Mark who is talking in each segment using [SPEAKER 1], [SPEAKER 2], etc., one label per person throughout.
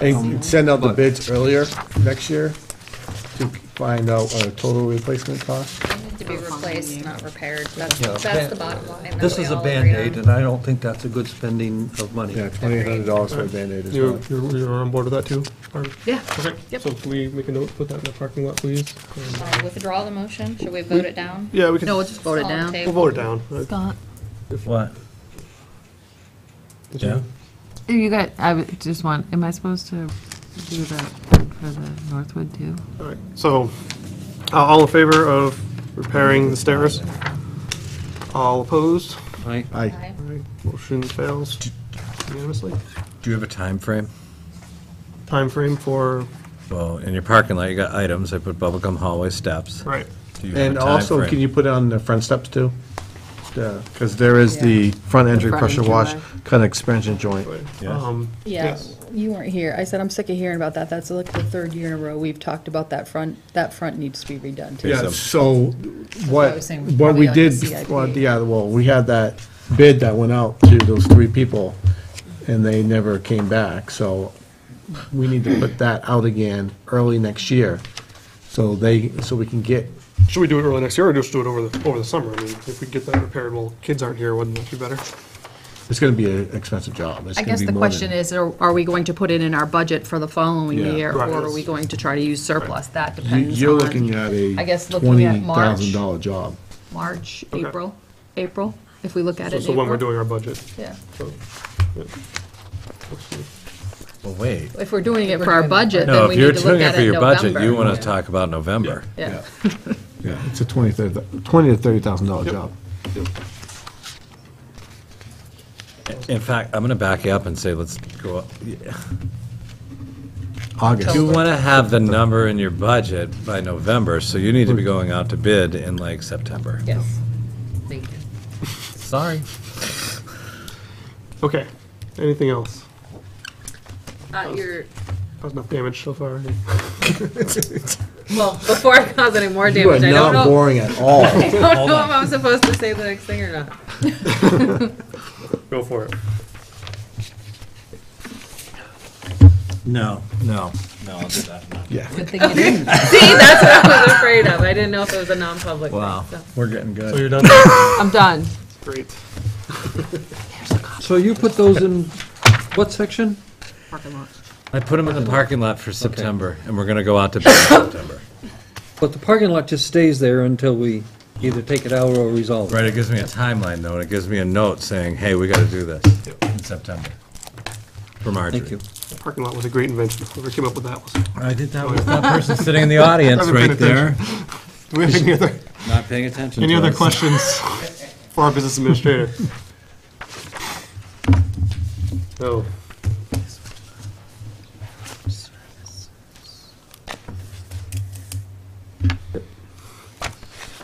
[SPEAKER 1] And send out the bids earlier next year to find out uh, total replacement cost?
[SPEAKER 2] To be replaced, not repaired, that's,
[SPEAKER 3] Yeah,
[SPEAKER 2] that's
[SPEAKER 3] ban-
[SPEAKER 2] the bottom line. that
[SPEAKER 3] This
[SPEAKER 2] we
[SPEAKER 3] is a
[SPEAKER 2] all agree
[SPEAKER 3] Band-Aid,
[SPEAKER 2] on.
[SPEAKER 3] and I don't think that's a good spending of money.
[SPEAKER 1] Yeah, twenty-eight hundred dollars for a Band-Aid is
[SPEAKER 4] You're,
[SPEAKER 1] well.
[SPEAKER 4] you're you're on board with that too? Barb?
[SPEAKER 5] Yeah.
[SPEAKER 4] Okay,
[SPEAKER 5] Yep.
[SPEAKER 4] so can we make a note, put that in the parking lot, please? And-
[SPEAKER 2] Uh, Withdraw the motion, should we vote it down?
[SPEAKER 4] Yeah, we can,
[SPEAKER 5] No, we'll
[SPEAKER 4] we'll
[SPEAKER 5] just vote it
[SPEAKER 2] All in
[SPEAKER 5] down.
[SPEAKER 2] favor?
[SPEAKER 4] vote it down. Uh,
[SPEAKER 6] Scott,
[SPEAKER 3] What?
[SPEAKER 4] that's fine.
[SPEAKER 6] you got, I would just want, am I supposed to do that for the Northwood too?
[SPEAKER 4] All right, so, uh, all in favor of repairing the stairs? All opposed?
[SPEAKER 3] Right.
[SPEAKER 1] I,
[SPEAKER 2] Aye.
[SPEAKER 4] All right, Motion fails unanimously.
[SPEAKER 7] Do you have a time frame?
[SPEAKER 4] Time frame for,
[SPEAKER 7] Well, in your parking lot, you got items, I put bubblegum hallway steps.
[SPEAKER 4] right,
[SPEAKER 7] Do you have a
[SPEAKER 1] and
[SPEAKER 7] time
[SPEAKER 1] also,
[SPEAKER 7] frame?
[SPEAKER 1] can you put on the front steps too? Because there is the front entry
[SPEAKER 5] front
[SPEAKER 1] pressure
[SPEAKER 5] entry
[SPEAKER 1] wash,
[SPEAKER 5] wash.
[SPEAKER 1] kind of expansion joint.
[SPEAKER 7] Yeah.
[SPEAKER 4] um,
[SPEAKER 5] Yeah,
[SPEAKER 4] yes.
[SPEAKER 5] you weren't here. I said, I'm sick of hearing about that. That's like the third year in a row we've talked about that front. That front needs to be redone too.
[SPEAKER 1] Yeah, so
[SPEAKER 5] I was
[SPEAKER 1] what,
[SPEAKER 5] saying,
[SPEAKER 1] what
[SPEAKER 5] probably
[SPEAKER 1] we
[SPEAKER 5] like a
[SPEAKER 1] did,
[SPEAKER 5] CIP.
[SPEAKER 1] well, yeah, well, we had that bid that went out to those three people, and they never came back, so we need to put that out again early next year, so they, so we can get,
[SPEAKER 4] Should we do it early next year or just do it over the, over the summer? I mean, if we get that repaired while kids aren't here, wouldn't that be better?
[SPEAKER 1] it's gonna be an expensive job. It's
[SPEAKER 5] I
[SPEAKER 1] gonna
[SPEAKER 5] guess
[SPEAKER 1] be
[SPEAKER 5] the
[SPEAKER 1] more than-
[SPEAKER 5] question is, are are we going to put it in our budget for the following
[SPEAKER 1] Yeah.
[SPEAKER 5] year? Or
[SPEAKER 4] Right.
[SPEAKER 5] are we going to try to use surplus? That
[SPEAKER 1] You-
[SPEAKER 5] depends
[SPEAKER 1] You're looking
[SPEAKER 5] on
[SPEAKER 1] at a
[SPEAKER 5] I guess looking at March.
[SPEAKER 1] twenty thousand dollar job.
[SPEAKER 5] March,
[SPEAKER 4] Okay.
[SPEAKER 5] April, April, if we look at it in
[SPEAKER 4] So when we're
[SPEAKER 5] April.
[SPEAKER 4] doing our budget.
[SPEAKER 5] Yeah.
[SPEAKER 7] Well, wait.
[SPEAKER 5] If we're doing it for our budget, then
[SPEAKER 7] No,
[SPEAKER 5] we
[SPEAKER 7] if you're
[SPEAKER 5] need to look
[SPEAKER 7] doing it
[SPEAKER 5] at
[SPEAKER 7] for
[SPEAKER 5] it in
[SPEAKER 7] your budget, you
[SPEAKER 5] November.
[SPEAKER 7] want to talk about November.
[SPEAKER 5] Yeah.
[SPEAKER 1] Yeah, it's a twenty, thirty, twenty to thirty thousand dollar job.
[SPEAKER 7] In fact, I'm going to back you up and say, let's go, up.
[SPEAKER 1] August.
[SPEAKER 7] you want to have the number in your budget by November, so you need to be going out to bid in like September.
[SPEAKER 5] Yes. Thank you.
[SPEAKER 7] Sorry.
[SPEAKER 4] Okay, anything else?
[SPEAKER 6] Uh, your,
[SPEAKER 4] Caused enough damage so far.
[SPEAKER 6] well, before I cause any more
[SPEAKER 1] You are
[SPEAKER 6] damage, I don't
[SPEAKER 1] not
[SPEAKER 6] know,
[SPEAKER 1] boring at all.
[SPEAKER 6] I don't know if I'm supposed to say the next thing or not.
[SPEAKER 4] Go for it.
[SPEAKER 7] No, no, no, I'll do that.
[SPEAKER 1] Yeah.
[SPEAKER 5] Good thing you didn't.
[SPEAKER 6] See, that's what I was afraid of. I didn't know if it was a non-public
[SPEAKER 7] Wow,
[SPEAKER 6] thing, so.
[SPEAKER 7] we're getting
[SPEAKER 4] So
[SPEAKER 7] good.
[SPEAKER 4] you're done?
[SPEAKER 6] I'm done.
[SPEAKER 4] Great.
[SPEAKER 3] So you put those in what section?
[SPEAKER 6] Parking lot.
[SPEAKER 7] I put them in the parking lot for September, and we're going to go out to bid in September.
[SPEAKER 3] But the parking lot just stays there until we either take it out or resolve it.
[SPEAKER 7] Right, it gives me a timeline though, and it gives me a note saying, hey, we gotta do this in September. For Marjorie.
[SPEAKER 3] Thank you.
[SPEAKER 4] Parking lot was a great invention. Whoever came up with that was.
[SPEAKER 7] I did that with that person sitting in the audience
[SPEAKER 4] Haven't paid
[SPEAKER 7] right there,
[SPEAKER 4] Do we have any other,
[SPEAKER 7] not paying attention
[SPEAKER 4] any
[SPEAKER 7] to
[SPEAKER 4] other
[SPEAKER 7] us.
[SPEAKER 4] questions for our business administrator? No.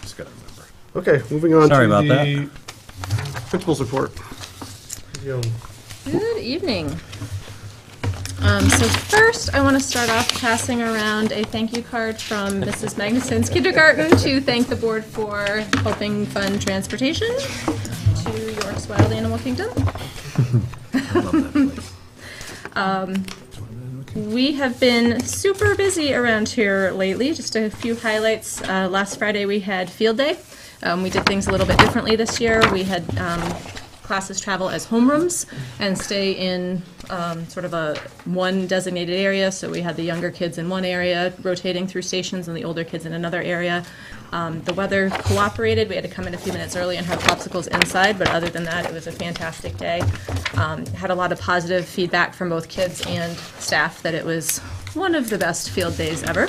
[SPEAKER 7] Just gotta remember.
[SPEAKER 4] Okay, moving on
[SPEAKER 7] Sorry
[SPEAKER 4] to
[SPEAKER 7] about that.
[SPEAKER 4] the principal's report. Yeah.
[SPEAKER 2] Good evening. Um, so first, I want to start off passing around a thank you card from Mrs. Magnuson's kindergarten to thank the board for helping fund transportation to York's Wild Animal Kingdom. Um, We have been super busy around here lately. Just a few highlights. Uh, last Friday we had field day. Um, we did things a little bit differently this year. We had um, classes travel as homerooms and stay in um, sort of a one designated area. So we had the younger kids in one area rotating through stations and the older kids in another area. Um, the weather cooperated. We had to come in a few minutes early and have popsicles inside, but other than that, it was a fantastic day. Um, had a lot of positive feedback from both kids and staff that it was one of the best field days ever.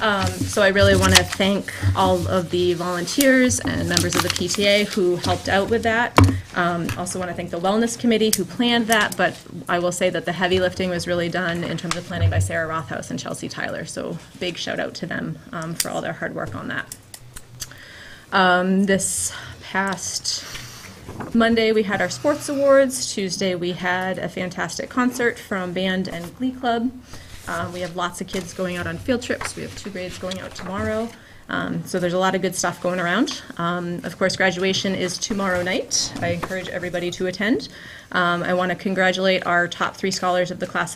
[SPEAKER 2] Um, so I really want to thank all of the volunteers and members of the PTA who helped out with that. Um, also want to thank the Wellness Committee who planned that, but I will say that the heavy lifting was really done in terms of planning by Sarah Rothhouse and Chelsea Tyler. So big shout out to them um, for all their hard work on that. Um, this past Monday, we had our sports awards. Tuesday, we had a fantastic concert from band and glee club. Um, we have lots of kids going out on field trips. We have two grades going out tomorrow. Um, so there's a lot of good stuff going around. Um, of course, graduation is tomorrow night. I encourage everybody to attend. Um, I want to congratulate our top three scholars of the class of